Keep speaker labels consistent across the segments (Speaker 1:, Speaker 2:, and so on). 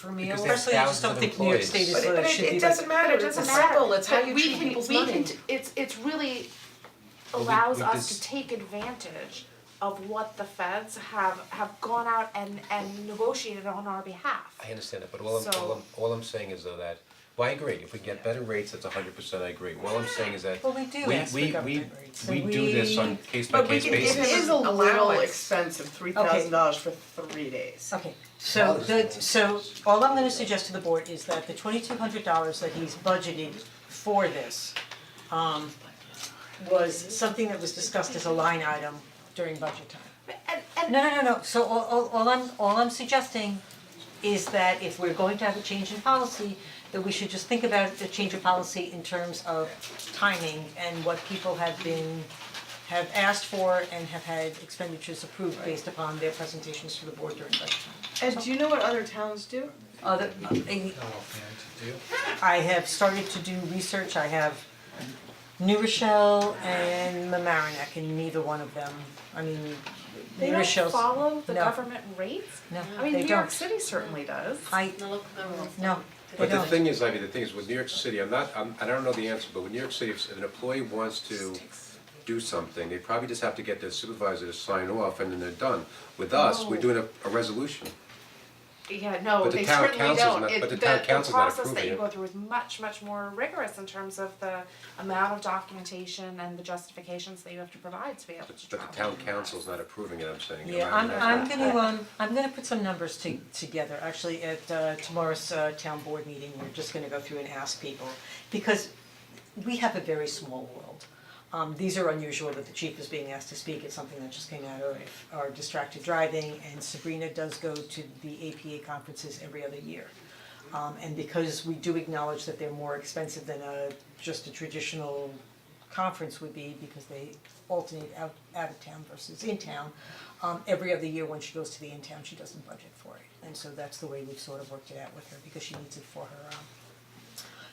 Speaker 1: per meal.
Speaker 2: Because they have
Speaker 1: Personally, I just don't
Speaker 2: thousands of
Speaker 1: think New York State
Speaker 2: employees.
Speaker 1: is
Speaker 3: But it-
Speaker 1: what
Speaker 3: but
Speaker 1: it
Speaker 3: it-
Speaker 1: should
Speaker 3: it
Speaker 1: be,
Speaker 3: doesn't
Speaker 1: but
Speaker 3: matter,
Speaker 4: But
Speaker 3: it doesn't matter, it's how
Speaker 4: but
Speaker 3: you
Speaker 4: we
Speaker 3: treat
Speaker 4: can-
Speaker 3: people's
Speaker 4: we
Speaker 3: money.
Speaker 4: can t- it's it's really
Speaker 2: Well, we-
Speaker 4: allows
Speaker 2: we
Speaker 4: us
Speaker 2: dis-
Speaker 4: to take advantage of what the feds have have gone out and and negotiated on our behalf.
Speaker 2: I understand that, but all I'm, all
Speaker 4: So-
Speaker 2: I'm, all I'm saying is though that, well, I agree, if we get better rates, that's hundred percent, I agree, all I'm saying is that
Speaker 1: Well, we do ask for government rates,
Speaker 2: we,
Speaker 1: and
Speaker 2: we, we do this
Speaker 1: we-
Speaker 2: on case by
Speaker 3: But we
Speaker 2: case
Speaker 3: can give
Speaker 2: basis.
Speaker 3: him
Speaker 5: It is
Speaker 3: an
Speaker 5: a little
Speaker 3: allowance.
Speaker 5: expensive, three thousand dollars for three days.
Speaker 1: Okay, so the, so all I'm gonna suggest to the board is that the twenty-two hundred dollars that he's budgeted for this um was something that was discussed as a line item during budget time.
Speaker 4: And and
Speaker 1: No, no, no, no, so all all all I'm all I'm suggesting is that if we're going to have a change in policy, that we should just think about the change of policy in terms of timing and what people have been have asked for and have had expenditures approved based upon their presentations to the board during budget time.
Speaker 5: And do you know what other towns do?
Speaker 1: Other, I have started to do research, I have New Rochelle and Mamaroneck, and neither one of them, I mean,
Speaker 4: they
Speaker 1: New
Speaker 4: don't
Speaker 1: Rochelle's,
Speaker 4: follow the
Speaker 1: no.
Speaker 4: government rates.
Speaker 1: No,
Speaker 4: I mean,
Speaker 1: they
Speaker 4: New
Speaker 1: don't.
Speaker 4: York City certainly does.
Speaker 1: I, no, they
Speaker 2: But the
Speaker 1: don't,
Speaker 2: thing is, I mean, the thing is, with New York City, I'm not, I'm, I don't know the answer, but with New York City, if an employee wants to do something, they probably just have to get their supervisor to sign off and then they're done. With us, we're doing a, a resolution.
Speaker 4: Yeah, no,
Speaker 2: But the
Speaker 4: they
Speaker 2: town
Speaker 4: certainly
Speaker 2: council's
Speaker 4: don't.
Speaker 2: not-
Speaker 4: It-
Speaker 2: but the
Speaker 4: the
Speaker 2: town
Speaker 4: the
Speaker 2: council's not
Speaker 4: process that
Speaker 2: approving
Speaker 4: you
Speaker 2: it.
Speaker 4: go through is much, much more rigorous in terms of the amount of documentation and the justifications that you have to provide to be able to
Speaker 2: But
Speaker 4: travel.
Speaker 2: but the town council's not approving it, I'm saying. am
Speaker 1: yeah,
Speaker 2: I-
Speaker 1: I'm I'm gonna, um, I'm gonna put some numbers to together, actually, at uh tomorrow's uh town board meeting, we're just gonna go through and ask people. Because we have a very small world. Um, these are unusual that the chief is being asked to speak, it's something that just came out of our distracted driving, and Sabrina does go to the APA conferences every other year. Um, and because we do acknowledge that they're more expensive than a, just a traditional conference would be, because they alternate out, out of town versus in town, um, every other year when she goes to the in town, she doesn't budget for it. And so that's the way we've sort of worked it out with her, because she needs it for her, um,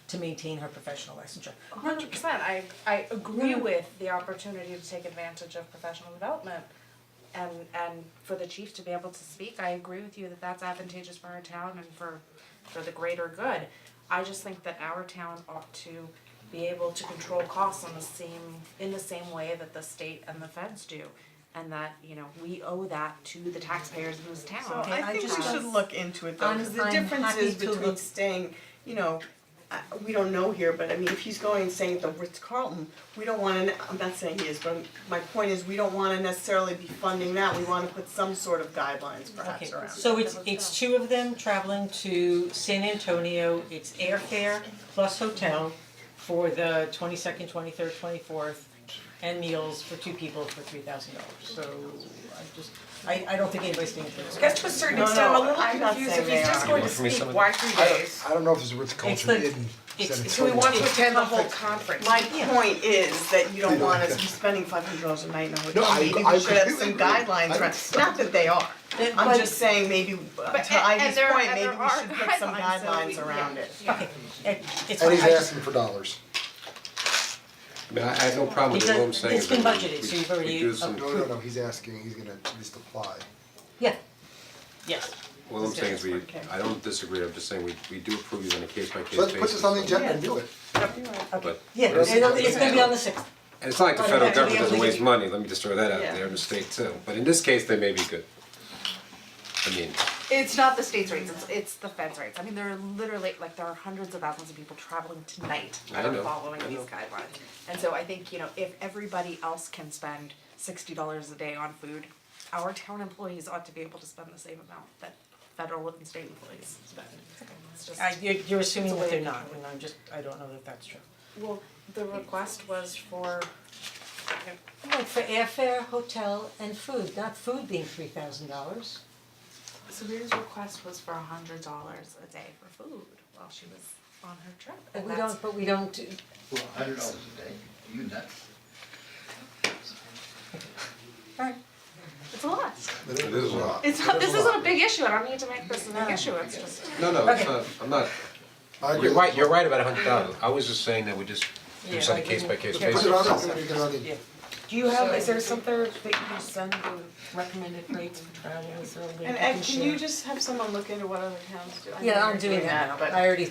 Speaker 1: to maintain her professional licensure.
Speaker 4: hundred percent, I I agree
Speaker 1: No.
Speaker 4: with the opportunity to take advantage of professional development. And and for the chief to be able to speak, I agree with you that that's advantageous for our town and for for the greater good. I just think that our town ought to be able to control costs on the same, in the same way that the state and the feds do. And that, you know, we owe that to the taxpayers in this town.
Speaker 5: So I
Speaker 1: I
Speaker 5: think we
Speaker 1: just-
Speaker 5: should look into it though,
Speaker 1: I'm-
Speaker 5: cause the
Speaker 1: I'm
Speaker 5: difference
Speaker 1: happy
Speaker 5: is
Speaker 1: to
Speaker 5: between
Speaker 1: look-
Speaker 5: staying, you know, I- we don't know here, but I mean, if he's going and staying at the Ritz Carlton, we don't wanna, I'm not saying he is, but my point is, we don't wanna necessarily be funding that, we wanna put some sort of guidelines
Speaker 1: Okay,
Speaker 5: perhaps around it.
Speaker 1: so it's it's two of them traveling to San Antonio, it's airfare plus hotel for the twenty second, twenty third, twenty fourth. And meals for two people for three thousand dollars, so I just, I I don't think anybody's thinking for this.
Speaker 3: I guess to a certain
Speaker 5: No,
Speaker 3: extent, I'm a
Speaker 5: no,
Speaker 3: little
Speaker 5: I'm not
Speaker 3: confused,
Speaker 5: saying
Speaker 3: if he's
Speaker 5: they
Speaker 3: just
Speaker 5: are.
Speaker 3: going to
Speaker 2: Want me
Speaker 3: speak,
Speaker 2: some of
Speaker 3: why
Speaker 2: that?
Speaker 3: three
Speaker 6: I
Speaker 3: days?
Speaker 6: don't, I don't know if it's what
Speaker 1: It's
Speaker 6: the culture
Speaker 1: like-
Speaker 6: did in
Speaker 1: it's-
Speaker 6: San
Speaker 1: it's
Speaker 3: Do we
Speaker 6: Antonio.
Speaker 3: want to
Speaker 1: It's
Speaker 3: attend the whole
Speaker 1: perfect.
Speaker 3: conference?
Speaker 5: My
Speaker 1: Yeah.
Speaker 5: point is that you don't
Speaker 6: We don't
Speaker 5: want us
Speaker 6: have
Speaker 5: to be
Speaker 6: to.
Speaker 5: spending five hundred dollars a night in a
Speaker 6: No,
Speaker 5: hotel,
Speaker 6: I-
Speaker 5: maybe
Speaker 6: I
Speaker 5: we should have
Speaker 6: completely
Speaker 5: some
Speaker 6: agree.
Speaker 5: guidelines
Speaker 6: I-
Speaker 5: around, not that they are.
Speaker 1: Then-
Speaker 5: I'm
Speaker 1: but-
Speaker 5: just saying maybe, uh,
Speaker 4: But-
Speaker 5: to
Speaker 4: and- and
Speaker 5: Ivy's
Speaker 4: there-
Speaker 5: point,
Speaker 4: and
Speaker 5: maybe
Speaker 4: there
Speaker 5: we
Speaker 4: are
Speaker 5: should put some
Speaker 4: guidelines, so we-
Speaker 5: guidelines around
Speaker 4: yeah,
Speaker 5: it.
Speaker 4: yeah.
Speaker 1: It it's
Speaker 6: And he's
Speaker 1: I just-
Speaker 6: asking for dollars.
Speaker 2: I mean, I I have no problem with it, all I'm
Speaker 1: because
Speaker 2: saying
Speaker 1: it's
Speaker 2: is
Speaker 1: been
Speaker 2: that we,
Speaker 1: budgeted, so
Speaker 2: we,
Speaker 1: you've
Speaker 2: we
Speaker 1: already
Speaker 2: do
Speaker 6: No,
Speaker 2: some,
Speaker 6: no, no, he's asking, he's gonna at least apply.
Speaker 1: yeah, yes,
Speaker 2: all I'm saying is we,
Speaker 5: Okay.
Speaker 2: I don't disagree, I'm just saying we, we do approve these on a case by case
Speaker 6: So
Speaker 2: basis.
Speaker 6: let's put this on the agenda and do it.
Speaker 2: But-
Speaker 1: yeah,
Speaker 2: but it's-
Speaker 1: it'll- it's gonna be on the sixth.
Speaker 2: And it's not like the
Speaker 1: Well,
Speaker 2: federal
Speaker 1: yeah,
Speaker 2: government
Speaker 1: we have
Speaker 2: doesn't
Speaker 1: to-
Speaker 2: waste money, let me just throw that out
Speaker 5: Yeah.
Speaker 2: there, the state too, but in this case, they may be good. I mean,
Speaker 4: It's not the state's rates, it's it's the feds' rates. I mean, there are literally, like, there are hundreds of thousands of people traveling tonight
Speaker 2: I
Speaker 4: that are
Speaker 2: know,
Speaker 4: following
Speaker 2: I
Speaker 4: these
Speaker 2: know.
Speaker 4: guidelines. And so I think, you know, if everybody else can spend sixty dollars a day on food, our town employees ought to be able to spend the same amount that federal and state employees spend. It's just,
Speaker 1: I you're you're assuming
Speaker 4: It's a
Speaker 1: that they're
Speaker 4: way-
Speaker 1: not, and I'm just, I don't know that that's true.
Speaker 4: well, the request was for,
Speaker 1: Like for airfare, hotel and food, not food being three thousand dollars.
Speaker 4: Sabrina's request was for a hundred dollars a day for food while she was on her trip.
Speaker 1: But
Speaker 4: And
Speaker 1: we
Speaker 4: that's-
Speaker 1: don't, but we don't, uh, do-
Speaker 7: Well, a hundred dollars a day, you nuts.
Speaker 1: alright,
Speaker 4: It's a lot.
Speaker 6: It
Speaker 2: is a lot.
Speaker 4: It's not, this isn't a big issue, I don't need to make this a big issue, it's just.
Speaker 2: no, no, it's
Speaker 1: Okay.
Speaker 2: not, I'm not,
Speaker 6: I agree.
Speaker 2: you're right, you're right about a hundred dollars, I was just saying that we just do
Speaker 1: Yeah,
Speaker 2: this on a
Speaker 1: like,
Speaker 2: case by case
Speaker 1: yeah.
Speaker 2: basis.
Speaker 6: Put it on, the- put it on the-
Speaker 1: yeah. Do you have, is there something that you can send the recommended rates for travel, is there a way
Speaker 5: And
Speaker 1: we
Speaker 5: and
Speaker 1: share?
Speaker 5: can you just have someone look into what other towns do? I know
Speaker 8: Yeah,
Speaker 5: you're
Speaker 8: I'm doing that now,
Speaker 5: but-
Speaker 8: I already